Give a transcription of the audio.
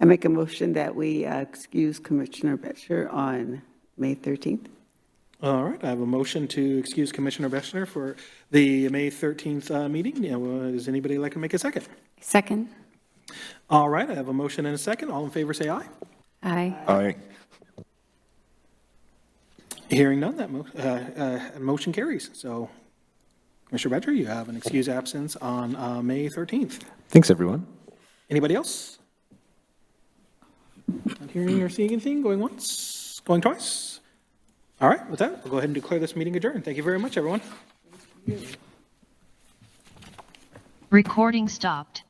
I make a motion that we uh, excuse Commissioner Betcher on May 13th. All right, I have a motion to excuse Commissioner Bechner for the May 13th uh, meeting. Now, uh, Does anybody like to make a second? Second. All right, I have a motion and a second. All in favor, say aye. Aye. Aye. Hearing none, that mo- uh, uh, motion carries. So Commissioner Bechner, you have an excused absence on uh, May 13th. Thanks, everyone. Anybody else? Not hearing or seeing anything, going once, going twice? All right, with that, we'll go ahead and declare this meeting adjourned. Thank you very much, everyone. Recording stopped.